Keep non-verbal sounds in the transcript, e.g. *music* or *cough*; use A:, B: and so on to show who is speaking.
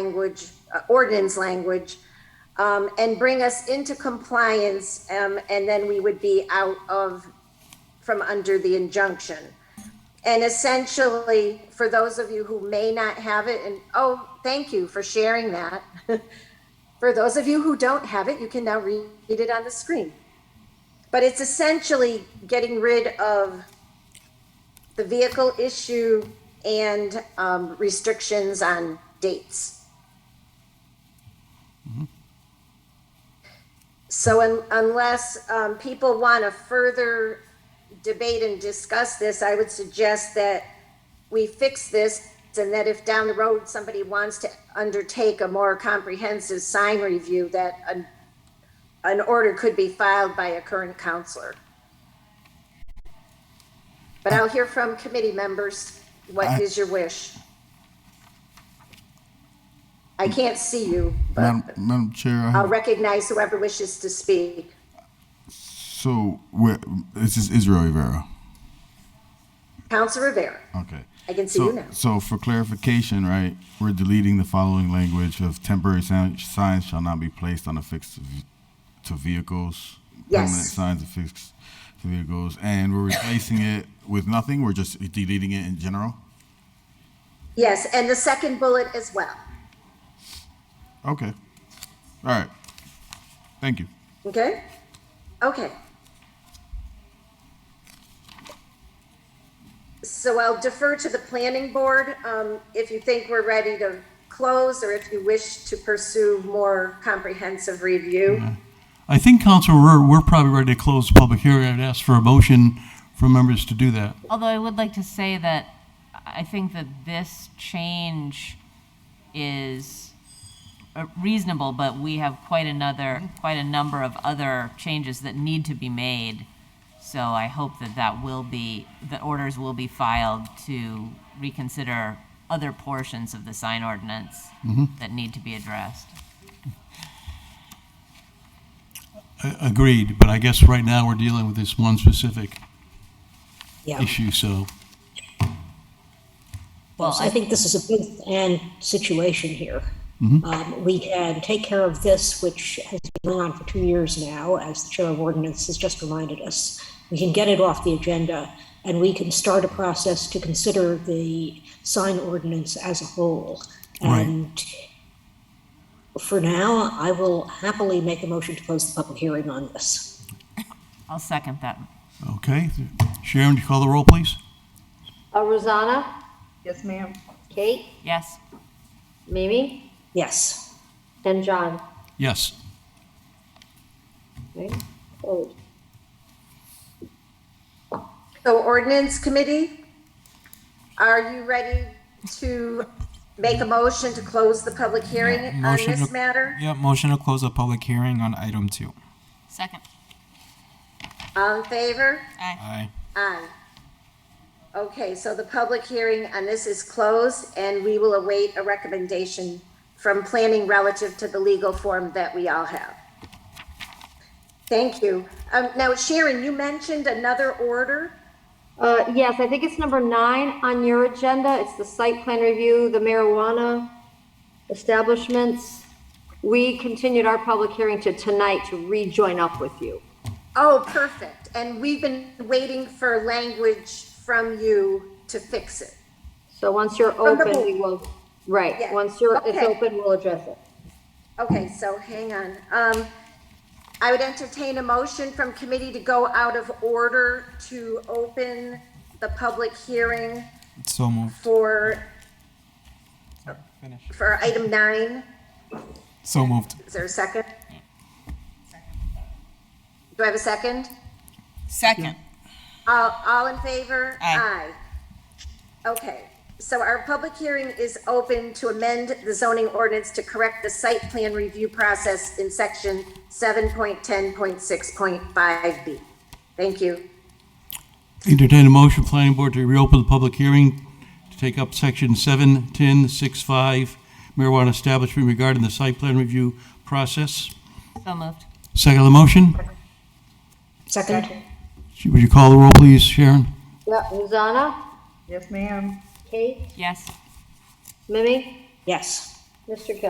A: language, uh, ordinance language, um, and bring us into compliance, um, and then we would be out of, from under the injunction. And essentially, for those of you who may not have it, and oh, thank you for sharing that. *laughs* For those of you who don't have it, you can now read it on the screen. But it's essentially getting rid of the vehicle issue and um, restrictions on dates. So un- unless um, people want to further debate and discuss this, I would suggest that we fix this and that if down the road somebody wants to undertake a more comprehensive sign review, that an, an order could be filed by a current counselor. But I'll hear from committee members. What is your wish? I can't see you, but
B: Madam, Madam Chair, I
A: I'll
B: have,
A: recognize whoever wishes to speak.
B: so where, this is Israel Rivera.
A: Counsel Rivera.
B: Okay.
A: I can see
B: so,
A: you now.
B: So for clarification, right, we're deleting the following language of temporary sign- signs shall not be placed on affixed v- to vehicles.
A: Yes.
B: Permanent signs affixed to vehicles, and we're replacing it with nothing. We're just deleting it in general.
A: Yes, and the second bullet as well.
B: Okay. All right. Thank you.
A: Okay? Okay. So I'll defer to the planning board, um, if you think we're ready to close or if you wish to pursue more comprehensive review.
C: I think, Counselor, we're, we're probably ready to close the public hearing. I'd ask for a motion for members to do that.
D: Although I would like to say that I think that this change is uh, reasonable, but we have quite another, quite a number of other changes that need to be made. So I hope that that will be, that orders will be filed to reconsider other portions of the sign ordinance that need to be addressed.
C: A- Agreed, but I guess right now we're dealing with this one specific
E: Yeah,
C: issue, so.
E: well, I think this is a both and situation here.
C: Mm-hmm.
E: Um, we can take care of this, which has been going on for two years now, as the chair of ordinance has just reminded us. We can get it off the agenda and we can start a process to consider the sign ordinance as a whole.
C: Right.
E: And for now, I will happily make a motion to close the public hearing on this.
D: I'll second that.
C: Okay, Sharon, do you call the roll, please?
F: Uh, Rosanna,
G: Yes, ma'am.
F: Kate,
D: Yes?
F: Mimi,
E: Yes,
F: and John.
C: Yes.
F: Right? Oh,
A: So ordinance committee, are you ready to make a motion to close the public hearing on
H: Motion
A: this
H: to-
A: matter?
H: Yeah, motion to close the public hearing on item two.
D: Second.
A: All in favor?
H: Aye.
A: Aye. Okay, so the public hearing on this is closed, and we will await a recommendation from planning relative to the legal form that we all have. Thank you. Um, now Sharon, you mentioned another order.
F: Uh, yes, I think it's number nine on your agenda. It's the site plan review, the marijuana establishments. We continued our public hearing to tonight to rejoin up with you.
A: Oh, perfect. And we've been waiting for language from you to fix it.
F: So once you're
A: From the
F: open,
A: board.
F: we will, right,
A: Yeah.
F: once you're, it's
A: Okay.
F: open, we'll address it.
A: Okay, so hang on. Um, I would entertain a motion from committee to go out of order to open the public hearing
H: So moved.
A: for,
H: Finish.
A: for item nine.
H: So moved.
A: Is there a second? Do I have a second?
I: Second.
A: All, all in favor?
I: Aye.
A: Aye. Okay, so our public hearing is open to amend the zoning ordinance to correct the site plan review process in section seven point ten point six point five B. Thank you.
C: Entertain a motion, planning board, to reopen the public hearing to take up section seven, ten, six, five, marijuana establishment regarding the site plan review process.
D: So moved.
C: Second on the motion,
E: second?
C: would you call the roll, please, Sharon?
F: Yeah, Rosanna,
G: Yes, ma'am.
F: Kate,
D: Yes?
F: Mimi,
E: Yes,
F: Mr. Kelly.